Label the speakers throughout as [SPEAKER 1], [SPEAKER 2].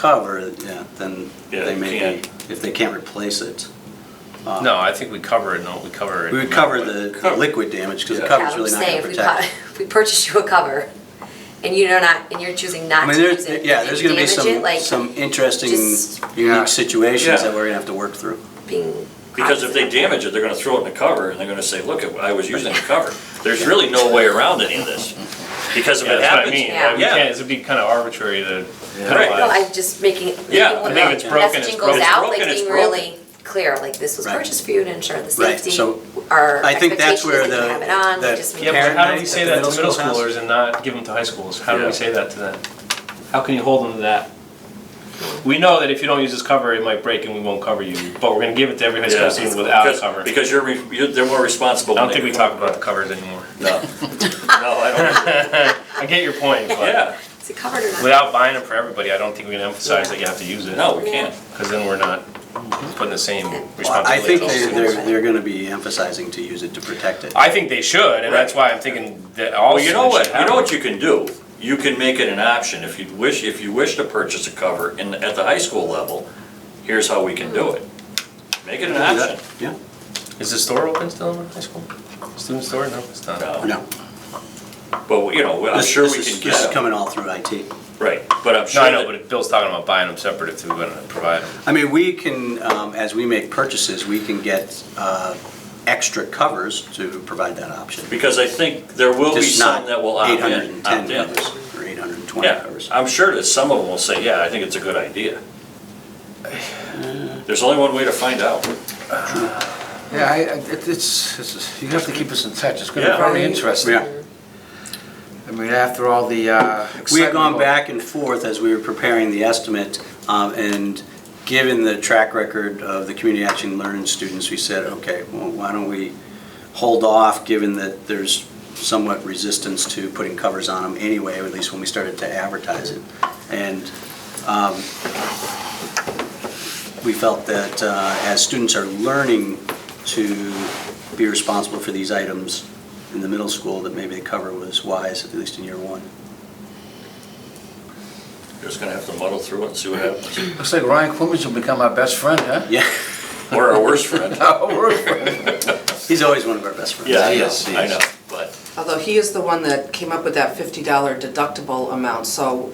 [SPEAKER 1] cover, yeah, then
[SPEAKER 2] Yeah,
[SPEAKER 1] they may be,
[SPEAKER 2] can't.
[SPEAKER 1] if they can't replace it. uh,
[SPEAKER 3] No, I think we cover it, no, we cover it.
[SPEAKER 1] We would cover the the liquid damage, because the
[SPEAKER 2] Yeah.
[SPEAKER 1] cover's
[SPEAKER 4] Yeah, I would
[SPEAKER 1] really not
[SPEAKER 4] say
[SPEAKER 1] gonna
[SPEAKER 4] if we
[SPEAKER 1] protect
[SPEAKER 4] buy-
[SPEAKER 1] it.
[SPEAKER 4] If we purchase you a cover and you're not, and you're choosing
[SPEAKER 1] I
[SPEAKER 4] not
[SPEAKER 1] mean,
[SPEAKER 4] to use
[SPEAKER 1] there's,
[SPEAKER 4] it.
[SPEAKER 1] yeah,
[SPEAKER 4] and
[SPEAKER 1] there's
[SPEAKER 4] you
[SPEAKER 1] gonna be
[SPEAKER 4] damage
[SPEAKER 1] some,
[SPEAKER 4] it, like,
[SPEAKER 1] some interesting,
[SPEAKER 4] just-
[SPEAKER 2] Yeah.
[SPEAKER 1] unique situations
[SPEAKER 2] Yeah.
[SPEAKER 1] that we're gonna have to work through.
[SPEAKER 4] Being.
[SPEAKER 2] Because if they
[SPEAKER 4] cognizant of
[SPEAKER 2] damage it, they're gonna throw it in the cover, and they're gonna say, look, I was using the cover. There's really no way around any of this, because if
[SPEAKER 5] Yeah,
[SPEAKER 2] it
[SPEAKER 5] that's what I
[SPEAKER 2] happens.
[SPEAKER 5] mean.
[SPEAKER 4] Yeah.
[SPEAKER 5] Like, we can't, it'd be kind of arbitrary to
[SPEAKER 4] that. No,
[SPEAKER 5] penalize.
[SPEAKER 4] I'm just making, making
[SPEAKER 2] Yeah,
[SPEAKER 4] when
[SPEAKER 2] I
[SPEAKER 4] the
[SPEAKER 2] think it's
[SPEAKER 5] broken, it's
[SPEAKER 4] messaging
[SPEAKER 5] broken.
[SPEAKER 4] goes out,
[SPEAKER 2] It's
[SPEAKER 4] like
[SPEAKER 2] broken, it's
[SPEAKER 4] being really clear, like this was
[SPEAKER 1] Right.
[SPEAKER 4] purchased for you to ensure the
[SPEAKER 1] Right,
[SPEAKER 4] safety.
[SPEAKER 1] so
[SPEAKER 4] Our
[SPEAKER 1] I think that's
[SPEAKER 4] expectation is
[SPEAKER 1] where
[SPEAKER 4] that
[SPEAKER 1] the-
[SPEAKER 4] you have it on,
[SPEAKER 1] the
[SPEAKER 4] we just.
[SPEAKER 5] Yeah,
[SPEAKER 4] make-
[SPEAKER 5] but
[SPEAKER 1] Parent
[SPEAKER 5] how do we
[SPEAKER 1] night
[SPEAKER 5] say
[SPEAKER 1] at the
[SPEAKER 5] that to
[SPEAKER 1] middle
[SPEAKER 5] middle
[SPEAKER 1] school has-
[SPEAKER 5] schoolers and not give them to high schools? How do
[SPEAKER 2] Yeah.
[SPEAKER 5] we say that to them? How can you hold them to that? We know that if you don't use this cover, it might break and we won't cover you, but we're gonna give it to every high
[SPEAKER 2] Yeah,
[SPEAKER 5] school student without a
[SPEAKER 2] because-
[SPEAKER 5] cover. I
[SPEAKER 2] Because you're, re- you're- they're more responsible.
[SPEAKER 5] don't
[SPEAKER 2] when
[SPEAKER 5] think
[SPEAKER 2] they-
[SPEAKER 5] we talk about the covers anymore.
[SPEAKER 2] No, no, I don't,
[SPEAKER 5] I get your point, but
[SPEAKER 2] yeah,
[SPEAKER 4] Is it covered or not?
[SPEAKER 5] without buying them for everybody, I don't think we can emphasize that you have to use it.
[SPEAKER 2] no, we can't.
[SPEAKER 5] Because then we're not putting the same responsibility.
[SPEAKER 1] Well, I think
[SPEAKER 5] on the
[SPEAKER 1] they're,
[SPEAKER 5] schools.
[SPEAKER 1] they're, they're gonna be emphasizing to use it to protect it.
[SPEAKER 5] I think they should, and that's why I'm thinking that all.
[SPEAKER 2] Well, you know
[SPEAKER 5] students
[SPEAKER 2] what,
[SPEAKER 5] should
[SPEAKER 2] you
[SPEAKER 5] have
[SPEAKER 2] know
[SPEAKER 5] one.
[SPEAKER 2] what you can do? You can make it an option, if you wish, if you wish to purchase a cover in, at the high school level, here's how we can do it. Make it an option.
[SPEAKER 1] Yeah,
[SPEAKER 5] Is the store open still in high school? Student store? No, it's not.
[SPEAKER 2] No.
[SPEAKER 1] no.
[SPEAKER 2] But, you know, I'm
[SPEAKER 1] This-
[SPEAKER 2] sure
[SPEAKER 1] this
[SPEAKER 2] we
[SPEAKER 1] is-
[SPEAKER 2] can
[SPEAKER 1] This is
[SPEAKER 2] get them,
[SPEAKER 1] coming all through IT.
[SPEAKER 2] right, but I'm
[SPEAKER 5] No,
[SPEAKER 2] sure
[SPEAKER 5] I know,
[SPEAKER 2] that,
[SPEAKER 5] but Bill's talking about buying them separate if we were gonna provide them.
[SPEAKER 1] I mean, we can, um, as we make purchases, we can get uh, extra covers to provide that option.
[SPEAKER 2] because I think there will be
[SPEAKER 1] Just not
[SPEAKER 2] some that will opt in, opt
[SPEAKER 1] 810
[SPEAKER 2] in.
[SPEAKER 1] covers or 820
[SPEAKER 2] Uh, Yeah,
[SPEAKER 1] covers.
[SPEAKER 2] I'm sure that some of them will say, yeah, I think it's a good idea. There's only one way to find out.
[SPEAKER 6] Yeah, I, I- it- it's, it's- you have to keep us in touch, it's gonna
[SPEAKER 2] Yeah.
[SPEAKER 6] be very interesting.
[SPEAKER 1] Yeah.
[SPEAKER 6] I mean, after all the, uh.
[SPEAKER 1] We had gone
[SPEAKER 6] excitement-
[SPEAKER 1] back and forth as we were preparing the estimate, um, and given the track record of the community action learning students, we said, okay, well, why don't we hold off, given that there's somewhat resistance to putting covers on them anyway, at least when we started to advertise it. And um, we felt that uh, as students are learning to be responsible for these items in the middle school, that maybe the cover was wise, at least in year one.
[SPEAKER 2] You're just gonna have to muddle through it and see what happens.
[SPEAKER 6] Looks like Ryan Clemens will become our best friend, huh?
[SPEAKER 1] Yeah,
[SPEAKER 2] Or our worst friend.
[SPEAKER 1] Oh,
[SPEAKER 6] Our worst friend.
[SPEAKER 1] he's always one of our best friends.
[SPEAKER 2] Yeah, I
[SPEAKER 6] He
[SPEAKER 2] know,
[SPEAKER 6] is, he
[SPEAKER 2] I
[SPEAKER 6] is.
[SPEAKER 2] know, but
[SPEAKER 7] Although he is the one that came up with that fifty dollar deductible amount, so,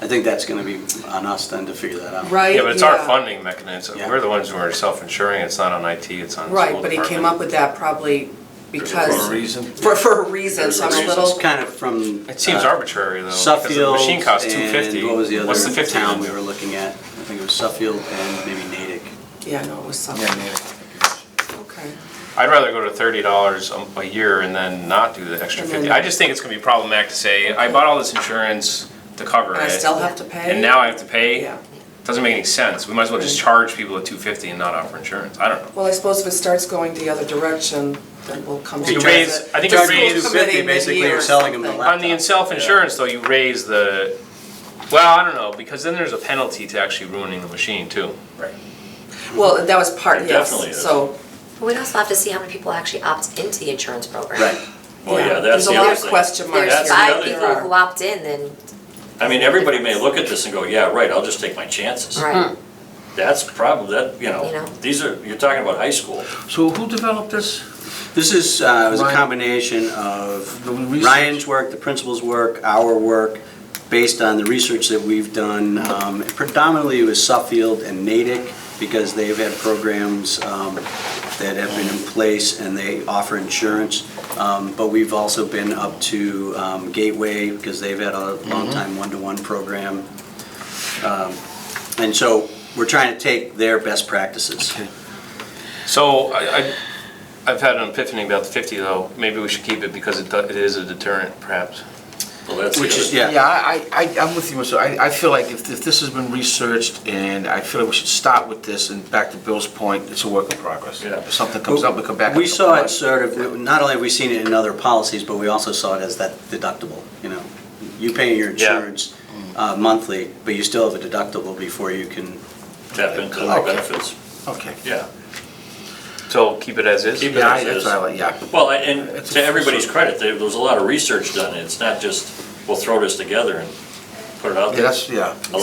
[SPEAKER 1] I think that's going to be on us then to figure that out.
[SPEAKER 7] right?
[SPEAKER 5] Yeah, but it's our funding mechanism.
[SPEAKER 1] Yeah.
[SPEAKER 5] We're the ones who are self-insuring. It's not on IT, it's on the school
[SPEAKER 7] Right, but he came up
[SPEAKER 5] department.
[SPEAKER 7] with that probably
[SPEAKER 6] For a
[SPEAKER 7] because,
[SPEAKER 6] reason.
[SPEAKER 7] for, for a reason, so I'm a
[SPEAKER 2] Reasons.
[SPEAKER 7] little,
[SPEAKER 1] It's kind of from.
[SPEAKER 5] It seems
[SPEAKER 1] uh,
[SPEAKER 5] arbitrary though, because the
[SPEAKER 1] Suffield
[SPEAKER 5] machine costs two fifty.
[SPEAKER 1] and what was the
[SPEAKER 5] What's the
[SPEAKER 1] other
[SPEAKER 5] fifty?
[SPEAKER 1] town we were looking at? I think it was Suffield and maybe Natick.
[SPEAKER 7] yeah, no, it was
[SPEAKER 6] Yeah,
[SPEAKER 7] something,
[SPEAKER 6] man.
[SPEAKER 7] okay.
[SPEAKER 5] I'd rather go to thirty dollars a year and then not do the extra
[SPEAKER 7] And
[SPEAKER 5] fifty.
[SPEAKER 7] then-
[SPEAKER 5] I just think it's gonna be problematic to say, I bought all this insurance to cover it.
[SPEAKER 7] And I still have to pay?
[SPEAKER 5] And now I have to pay?
[SPEAKER 7] Yeah. Mm.
[SPEAKER 5] Doesn't make any sense. We might as well just charge people at two fifty and not offer insurance. I don't know.
[SPEAKER 7] Well, I suppose if it starts going the other direction, then we'll come to
[SPEAKER 5] You
[SPEAKER 7] it.
[SPEAKER 5] raise- I think
[SPEAKER 7] The
[SPEAKER 5] you
[SPEAKER 7] school
[SPEAKER 5] raise-
[SPEAKER 7] committee
[SPEAKER 1] $2.50, basically,
[SPEAKER 7] mid-year
[SPEAKER 1] you're
[SPEAKER 7] or
[SPEAKER 1] selling them the
[SPEAKER 7] something.
[SPEAKER 1] lap-
[SPEAKER 5] On the self-insurance though, you raise the, well, I don't know, because then there's a penalty to actually ruining the machine too. Right.
[SPEAKER 7] Well, that was part,
[SPEAKER 2] It definitely
[SPEAKER 7] yes,
[SPEAKER 2] is.
[SPEAKER 7] so,
[SPEAKER 4] But We'd also have to see how many people actually opt into the insurance program.
[SPEAKER 1] Right.
[SPEAKER 2] Well, yeah,
[SPEAKER 7] yeah,
[SPEAKER 2] that's
[SPEAKER 7] there's a
[SPEAKER 2] the
[SPEAKER 7] lot
[SPEAKER 2] other
[SPEAKER 7] of
[SPEAKER 2] thing.
[SPEAKER 7] question
[SPEAKER 4] If
[SPEAKER 7] marks
[SPEAKER 2] That's
[SPEAKER 4] there's
[SPEAKER 2] the
[SPEAKER 7] here.
[SPEAKER 4] five
[SPEAKER 2] other-
[SPEAKER 4] people who opt in, then,
[SPEAKER 2] I mean, everybody may look at this and go, yeah, right, I'll just take my chances.
[SPEAKER 4] right,
[SPEAKER 2] That's probably, that, you
[SPEAKER 4] You
[SPEAKER 2] know,
[SPEAKER 4] know?
[SPEAKER 2] these are, you're talking about high school.
[SPEAKER 6] So who developed this?
[SPEAKER 1] This is, uh, it was a
[SPEAKER 6] Ryan-
[SPEAKER 1] combination
[SPEAKER 6] The
[SPEAKER 1] of
[SPEAKER 6] research.
[SPEAKER 1] Ryan's work, the principal's work, our work, based on the research that we've done. Um, Predominantly it was Suffield and Natick, because they've had programs um, that have been in place and they offer insurance. Um, But we've also been up to um, Gateway, because they've had a
[SPEAKER 6] Mm-hmm.
[SPEAKER 1] long time one-to-one program. Um, And so we're trying to take their best practices.
[SPEAKER 5] So I, I, I've had an epiphany about the fifty though. Maybe we should keep it because it, do- it is a deterrent perhaps.
[SPEAKER 2] Well, that's the
[SPEAKER 1] Which is-
[SPEAKER 2] other-
[SPEAKER 1] Yeah.
[SPEAKER 6] Yeah, I, I, I- I'm with you, so I, I feel like if, if this has been researched, and I feel like we should start with this, and back to Bill's point, it's a work in progress.
[SPEAKER 2] Yeah.
[SPEAKER 6] If something comes up, we come back.
[SPEAKER 1] We
[SPEAKER 6] and-
[SPEAKER 1] saw it sort of, not only have we seen it in other policies, but we also saw it as that deductible, you know? You pay your
[SPEAKER 5] Yeah.
[SPEAKER 1] insurance uh, monthly, but you still have a deductible before you can,
[SPEAKER 2] Tap into the
[SPEAKER 1] Okay.
[SPEAKER 2] benefits,
[SPEAKER 6] Okay.
[SPEAKER 2] yeah.
[SPEAKER 5] So keep it as is?
[SPEAKER 2] Keep it
[SPEAKER 6] Yeah, I-
[SPEAKER 2] as
[SPEAKER 6] that's
[SPEAKER 2] is.
[SPEAKER 6] what I like, yeah.
[SPEAKER 2] Well, and
[SPEAKER 6] It's
[SPEAKER 2] to
[SPEAKER 6] a-
[SPEAKER 2] everybody's credit, there there was a lot of research done. It's not just, we'll throw this together and put it out
[SPEAKER 6] Yeah,
[SPEAKER 2] there.
[SPEAKER 6] that's, yeah.